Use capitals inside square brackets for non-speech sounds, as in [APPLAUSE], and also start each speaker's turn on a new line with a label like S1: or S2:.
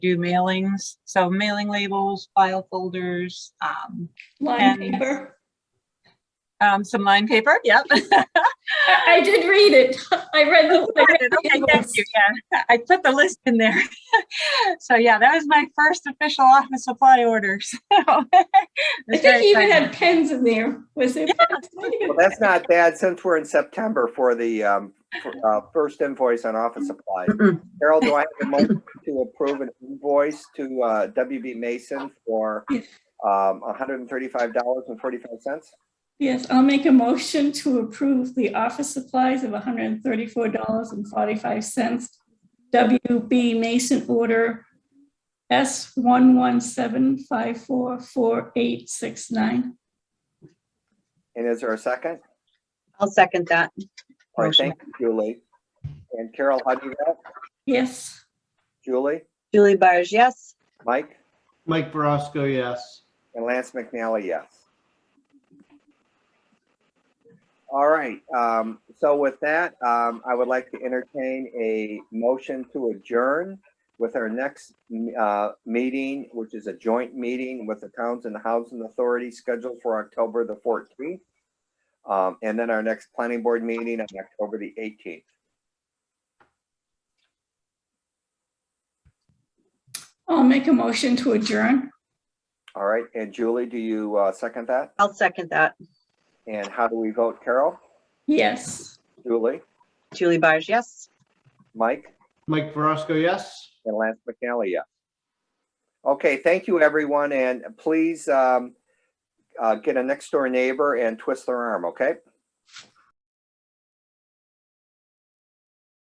S1: do mailings, so mailing labels, file folders, um,
S2: Line
S1: And-
S2: paper.
S1: um, some line paper, yep.
S2: I, I did read it. [LAUGHS] I read the. I read the
S1: Oh, [LAUGHS] Okay, thank
S2: invoice.
S1: you, yeah, I put the list in there. [LAUGHS] So yeah, that was my first official office supply order, [LAUGHS] so. I
S2: I think you even had pens in there. Was it?
S3: Well, that's not bad since we're in September for the um, for, uh, first invoice on office supplies.
S4: Mm-mm.
S3: Carol, do I have a motion to approve an invoice to uh, WB Mason for um, $135.45?
S2: [LAUGHS] Yes, I'll make a motion to approve the office supplies of hundred and thirty-four dollars and forty-five cents. WB Mason order S one one seven five four four eight six nine.
S3: And is there a second?
S4: I'll second that.
S3: All right, thank you, Julie. And Carol, how do you vote?
S2: Yes.
S3: Julie,
S4: Julie Byers, yes.
S3: Mike,
S5: Mike Verosco, yes.
S3: and Lance McNally, yes. All right, um, so with that, um, I would like to entertain a motion to adjourn with our next, uh, meeting, which is a joint meeting with the Towns and Housing Authority scheduled for October the fourteenth. Um, and then our next planning board meeting on October the eighteenth.
S2: I'll make a motion to adjourn.
S3: All right, and Julie, do you, uh, second that?
S4: I'll second that.
S3: And how do we vote? Carol?
S2: Yes.
S3: Julie?
S4: Julie Byers, yes.
S3: Mike?
S5: Mike Verosco, yes.
S3: and Lance McNally, yes. Okay, thank you, everyone, and please um, uh, get a next door neighbor and twist their arm, okay?